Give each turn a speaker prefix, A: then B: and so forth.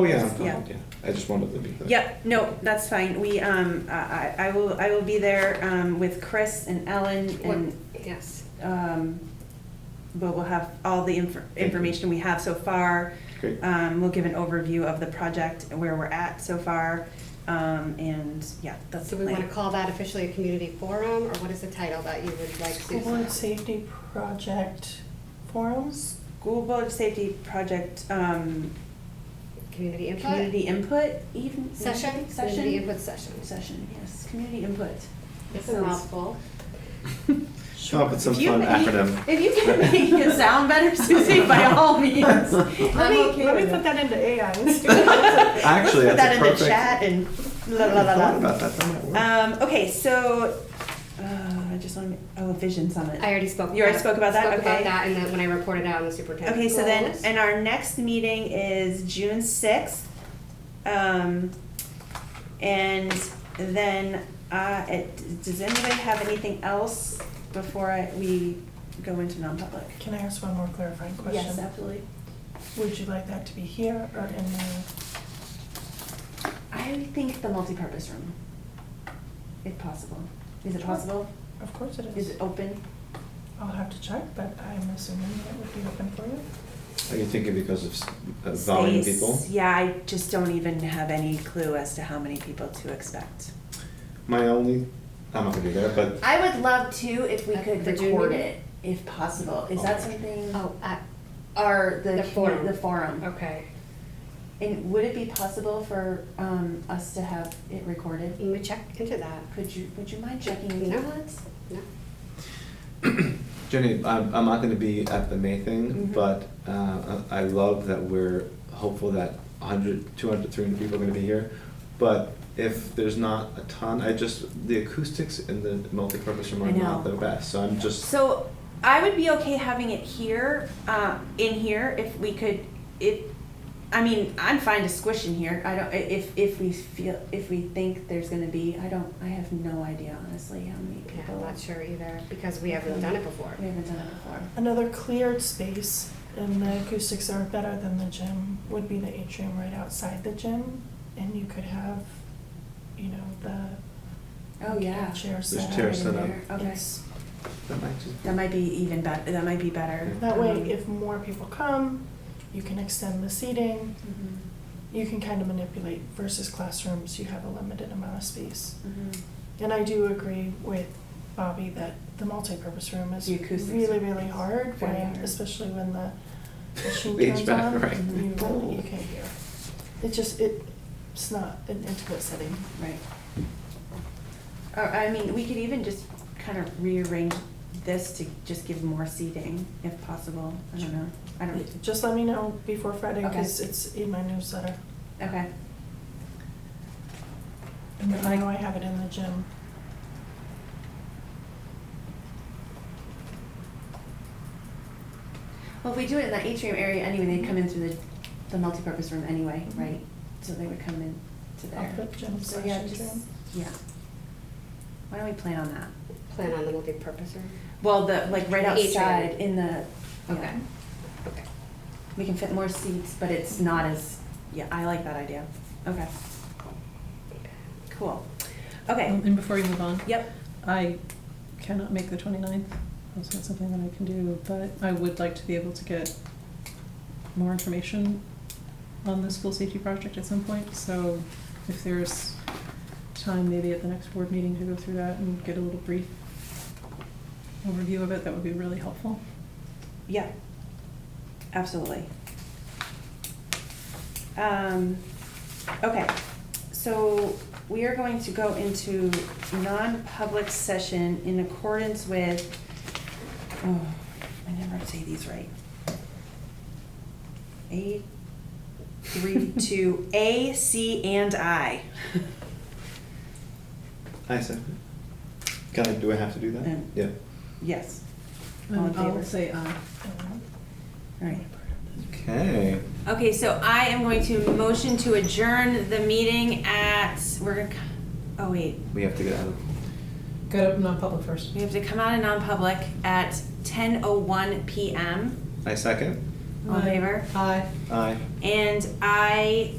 A: Oh, yeah, I'm fine,
B: Yeah.
A: yeah. I just wanted to be clear.
B: Yep, no, that's fine. We, um, I, I I will, I will be there, um, with Chris and Ellen and,
C: Yes.
B: um, but we'll have all the infor-
A: you.
B: information we have so far.
A: Great.
B: Um, we'll give an overview of the project, where we're at so far, um, and, yeah, that's
C: So
B: the
C: we want to
B: plan.
C: call that officially a community forum, or what is the title that you would like
D: School board
C: to?
D: safety project forums?
B: School Board Safety Project, um,
C: Community input?
B: Community Input even?
C: Session? Community
B: Session?
C: input session.
B: Session, yes, Community Input.
C: It's a mouthful.
A: Come up with some
B: If you
A: fun
B: make-
A: acronym.
B: If you can make it sound better, Susie, by all means.
D: Let
B: I'm
D: me,
B: okay
D: let me
B: with
D: put
B: it.
D: that into AI. and see what-
A: Actually,
B: Let's put
A: that's
B: that
A: a
B: in the
A: perfect.
B: chat and la la
A: I
B: la
A: hadn't
B: la.
A: thought about that, that might work.
B: Um, okay, so, uh, I just want to, oh, Vision Summit.
C: I already spoke.
B: You already spoke about that?
C: Spoke about
B: Okay.
C: that, and then when I reported out on the superintendent.
B: Okay, so then,
C: goals.
B: and our next meeting is June sixth. Um, and then, uh, it, does anybody have anything else before I, we go into non-public?
D: Can I ask one more clarifying
B: Yes,
D: question?
B: absolutely.
D: Would you like that to be here or in the,
B: I think the multipurpose room, if possible. Is it possible?
D: of course it
B: Is
D: is.
B: it open?
D: I'll have to check, but I'm assuming that would be open for you.
A: Are you thinking because of s- uh, volume
B: Space.
A: people?
B: Yeah, I just don't even have any clue as to how many people to expect.
A: My only, I'm not gonna be there, but
B: I would love to if we
C: At
B: could
C: the June
B: record
C: meeting?
B: it, if possible. Is that
A: Okay.
B: something?
C: Oh, I-
B: Or the,
C: The
B: commu-
C: forum.
B: The forum.
C: okay.
B: And would it be possible for um, us to have it recorded?
C: Let me check into that.
B: Could you, would you mind checking
C: No.
B: into that?
C: No?
A: Jenny, I'm, I'm not gonna be at the May thing,
B: Mhm.
A: but uh, I I love that we're hopeful that 100, 200, 300 people are gonna be here. But if there's not a ton, I just, the acoustics in the multipurpose room
B: I
A: are not
B: know.
A: the best, so I'm just,
B: So I would be okay having it here, uh, in here, if we could, if, I mean, I'm fine to squish in here. I don't, if, if we feel, if we think there's gonna be, I don't, I have no idea honestly how many
C: Yeah,
B: people.
C: I'm not sure either, because we haven't done it before.
B: We haven't done it before.
D: Another cleared space, and the acoustics are better than the gym, would be the atrium right outside the gym. And you could have, you know, the
B: Oh, yeah.
D: chair set.
A: There's
D: up.
A: chairs set up.
B: Okay,
D: Yes.
A: that might just,
B: that might be even better, that might be better.
D: That way,
B: Um,
D: if more people come, you can extend the seating,
B: mhm,
D: you can kind of manipulate versus classrooms, you have a limited amount of space.
B: mhm.
D: And I do agree with Bobby that the multipurpose room is
B: The acoustics
D: really,
B: are
D: really hard,
B: very
D: when-
B: hard.
D: especially when the machine
A: The
D: turns
A: HVAC,
D: on.
A: right.
D: You really, you
B: Mhm.
D: can't hear. It just, it, it's not an intimate setting.
B: Right. Or, I mean, we could even just kind of rearrange this to just give more seating if possible. I don't know. I don't,
D: Just let me know before Friday,
B: Okay.
D: because it's in my newsletter.
B: okay.
D: And I know I have it in the gym.
B: Well, if we do it in that atrium area anyway, they'd come in through the, the multipurpose room anyway,
D: Mhm.
B: right? So they would come in to
D: I'll
B: there.
D: put gym
B: So
D: slash
B: yeah, just-
D: atrium.
B: Yeah. Why don't we plan on that?
C: Plan on the multi-purpose room?
B: Well, the, like, right
C: The atrium.
B: outside in the,
C: Okay.
B: yeah.
C: Okay.
B: We can fit more seats, but it's not as, yeah, I like that idea. Okay, cool. Okay,
E: Um, And before you move on,
B: yep.
E: I cannot make the 29th. That's not something that I can do, but I would like to be able to get more information on the school safety project at some point. So if there's time, maybe at the next board meeting to go through that and get a little brief overview of it, that would be really helpful.
B: Yeah, absolutely. Um, okay, so we are going to go into non-public session in accordance with, oh, I never say these right. A, three, two, A, C, and I.
A: I second. Can I, do I have to do that?
B: Um,
A: Yeah.
B: Yes, All in
E: Um, I'll
B: favor?
E: say aye.
B: all right.
A: Okay.
B: Okay, so I am going to motion to adjourn the meeting at, we're gonna, c- oh wait,
A: We have to get out of.
E: Go to non-public first.
B: we have to come out of non-public at ten oh one PM.
A: I second.
B: All in favor?
E: Aye.
A: Aye.
B: And I